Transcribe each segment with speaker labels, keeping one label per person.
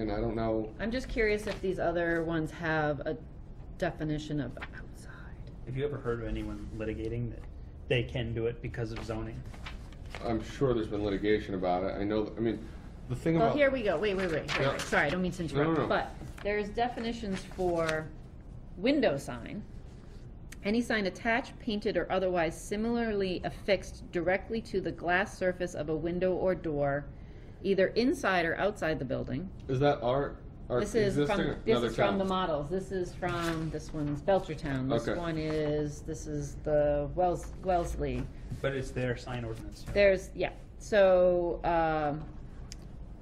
Speaker 1: And I don't know,
Speaker 2: I'm just curious if these other ones have a definition of outside.
Speaker 3: Have you ever heard of anyone litigating that they can do it because of zoning?
Speaker 1: I'm sure there's been litigation about it, I know, I mean, the thing
Speaker 2: Well,
Speaker 1: about.
Speaker 2: here we go, wait, wait, wait, wait,
Speaker 1: Yeah.
Speaker 2: wait, sorry, I don't mean to
Speaker 1: No, no, no.
Speaker 2: interrupt, but there's definitions for window sign. Any sign attached, painted, or otherwise similarly affixed directly to the glass surface of a window or door, either inside or outside the building.
Speaker 1: Is that our, our
Speaker 2: This is
Speaker 1: existing,
Speaker 2: from, this
Speaker 1: another
Speaker 2: is from the
Speaker 1: town?
Speaker 2: models, this is from, this one's Belchertown, this
Speaker 1: Okay.
Speaker 2: one is, this is the Wells, Wellesley.
Speaker 3: But it's their sign ordinance.
Speaker 2: There's, yeah, so, um,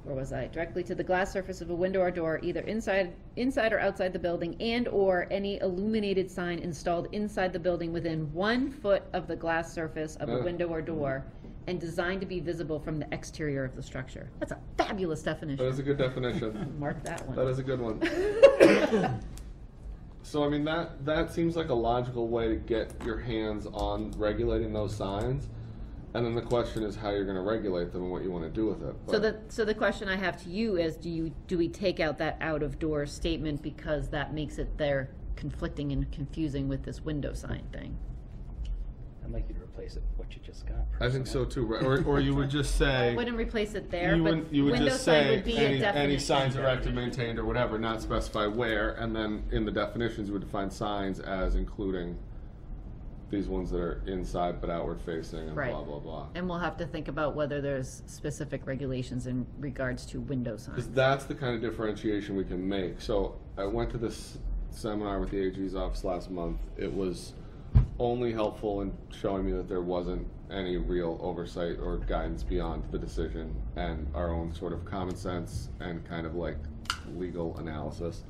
Speaker 2: where was I? Directly to the glass surface of a window or door, either inside, inside or outside the building, and/or any illuminated sign installed inside the building within one foot of the glass surface of a
Speaker 1: Uh.
Speaker 2: window or door, and designed to be visible from the exterior of the structure. That's a fabulous
Speaker 1: That is
Speaker 2: definition.
Speaker 1: a good definition,
Speaker 2: Mark that one.
Speaker 1: that is a good one. So I mean, that, that seems like a logical way to get your hands on regulating those signs. And then the question is how you're gonna regulate them and what you wanna do with it.
Speaker 2: So
Speaker 1: but-
Speaker 2: the, so the question I have to you is, do you, do we take out that out-of-door statement because that makes it there conflicting and confusing with this window sign thing?
Speaker 3: I'd like you to replace it with what you just got.
Speaker 1: I think so too, right? or, or you would just say.
Speaker 2: Wouldn't replace it there,
Speaker 1: You
Speaker 2: but
Speaker 1: would, you would
Speaker 2: window
Speaker 1: just
Speaker 2: sign
Speaker 1: say,
Speaker 2: would be a
Speaker 1: any, any
Speaker 2: definition.
Speaker 1: signs erected, maintained, or whatever, not specify where, and then in the definitions, you would define signs as including these ones that are inside but outward facing and
Speaker 2: Right.
Speaker 1: blah, blah, blah.
Speaker 2: And we'll have to think about whether there's specific regulations in regards to window signs.
Speaker 1: Because that's the kind of differentiation we can make. So I went to this seminar with the AG's office last month. It was only helpful in showing me that there wasn't any real oversight or guidance beyond the decision and our own sort of common sense and kind of like legal analysis.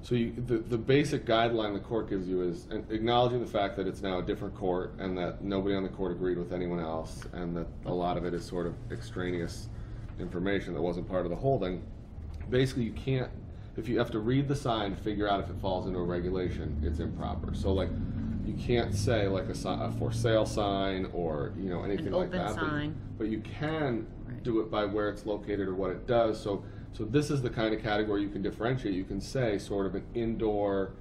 Speaker 1: So you, the, the basic guideline the court gives you is an- acknowledging the fact that it's now a different court and that nobody on the court agreed with anyone else and that a lot of it is sort of extraneous information that wasn't part of the holding. Basically, you can't, if you have to read the sign to figure out if it falls into a regulation, it's improper. So like, you can't say like a, si- a for sale sign or, you know, anything like
Speaker 2: open
Speaker 1: that. but-
Speaker 2: sign.
Speaker 1: But you can
Speaker 2: Right.
Speaker 1: do it by where it's located or what it does. So, so this is the kind of category you can differentiate. You can say sort of an indoor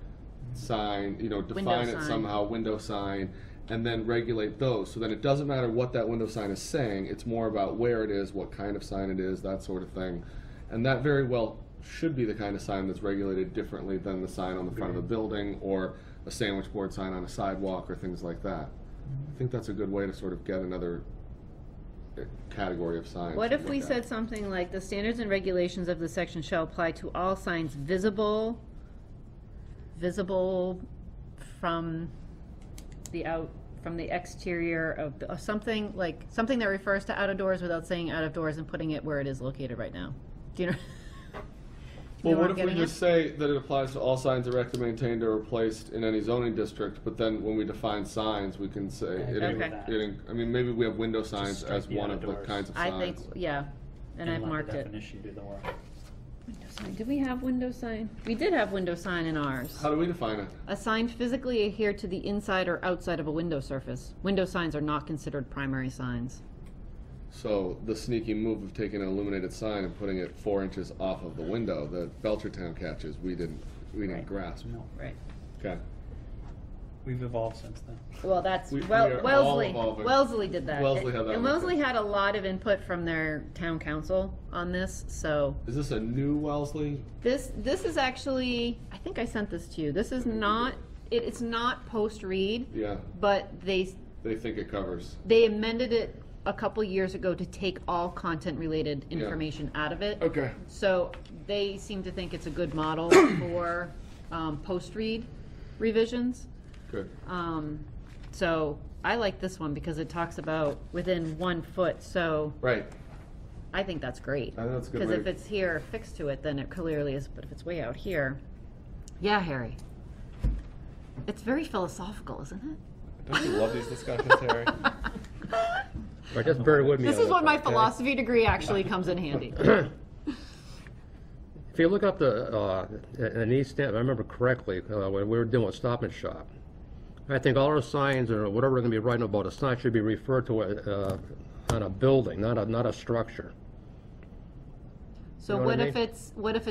Speaker 1: sign, you know, define it
Speaker 2: Mm-hmm. sign.
Speaker 1: somehow, window sign, and then regulate those. So then it doesn't matter what that window sign is saying. It's more about where it is, what kind of sign it is, that sort of thing. And that very well should be the kind of sign that's regulated differently than the sign on the front of a building or a sandwich board sign on a sidewalk or things like that.
Speaker 2: Mm-hmm.
Speaker 1: I think that's a good way to sort of get another uh, category of signs.
Speaker 2: What
Speaker 1: to
Speaker 2: if
Speaker 1: look
Speaker 2: we
Speaker 1: at.
Speaker 2: said something like, the standards and regulations of the section shall apply to all signs visible, visible from the out, from the exterior of, the- of something like, something that refers to out of doors without saying out of doors and putting it where it is located right now. Do you know?
Speaker 1: Well,
Speaker 2: know
Speaker 1: what
Speaker 2: I'm
Speaker 1: if we
Speaker 2: getting at?
Speaker 1: just say that it applies to all signs erected, maintained, or replaced in any zoning district, but then when we define signs, we can say, it,
Speaker 2: agree
Speaker 1: in-
Speaker 2: with
Speaker 3: that.
Speaker 1: it, in- I mean, maybe we have window signs
Speaker 3: strike
Speaker 1: as
Speaker 3: the
Speaker 1: one
Speaker 3: out
Speaker 1: of the
Speaker 3: of doors.
Speaker 1: kinds of
Speaker 2: I
Speaker 1: signs.
Speaker 2: think, yeah, and I've
Speaker 3: let the
Speaker 2: marked it.
Speaker 3: Definition do the work.
Speaker 2: Window sign. Did we have window sign? We did have window sign in ours.
Speaker 1: How do we define it?
Speaker 2: A sign physically adhere to the inside or outside of a window surface. Window signs are not considered primary signs.
Speaker 1: So the sneaky move of taking an illuminated sign and putting it four inches off of the window that Belchertown catches, we didn't, we didn't
Speaker 2: Right.
Speaker 1: grasp.
Speaker 3: No,
Speaker 2: Right.
Speaker 1: Okay.
Speaker 3: we've evolved since then.
Speaker 2: Well, that's,
Speaker 1: We- we are
Speaker 2: well,
Speaker 1: all
Speaker 2: Wellesley,
Speaker 1: evolving.
Speaker 2: Wellesley did that.
Speaker 1: Wellesley had that one,
Speaker 2: And Wellesley
Speaker 1: too.
Speaker 2: had a lot of input from their town council on this, so
Speaker 1: Is this a new Wellesley?
Speaker 2: this, this is actually, I think I sent this to you. This is not, it, it's not post-read,
Speaker 1: Yeah,
Speaker 2: but they,
Speaker 1: they think it covers.
Speaker 2: they amended it a couple years ago to take all content-related
Speaker 1: Yeah.
Speaker 2: information out of it.
Speaker 1: Okay.
Speaker 2: So they seem to think it's a good model for um, post-read revisions.
Speaker 1: Good.
Speaker 2: Um, So I like this one because it talks about within one foot, so
Speaker 1: Right.
Speaker 2: I think that's great.
Speaker 1: I think that's a good
Speaker 2: Because
Speaker 1: way
Speaker 2: if
Speaker 1: to-
Speaker 2: it's here fixed to it, then it clearly is, but if it's way out here, yeah, Harry. It's very philosophical, isn't it?
Speaker 4: Don't you love these discussions, Harry? I guess Barry would
Speaker 2: This is when my philosophy degree actually comes in handy.
Speaker 4: If you look up the, uh, an East Hampton, if I remember correctly, uh, when we were doing with Stop and Shop, I think all our signs or whatever we're gonna be writing about, a sign should be referred to, uh, on a building, not a, not a structure.
Speaker 2: So
Speaker 4: know what I
Speaker 2: what if
Speaker 4: mean?
Speaker 2: it's, what if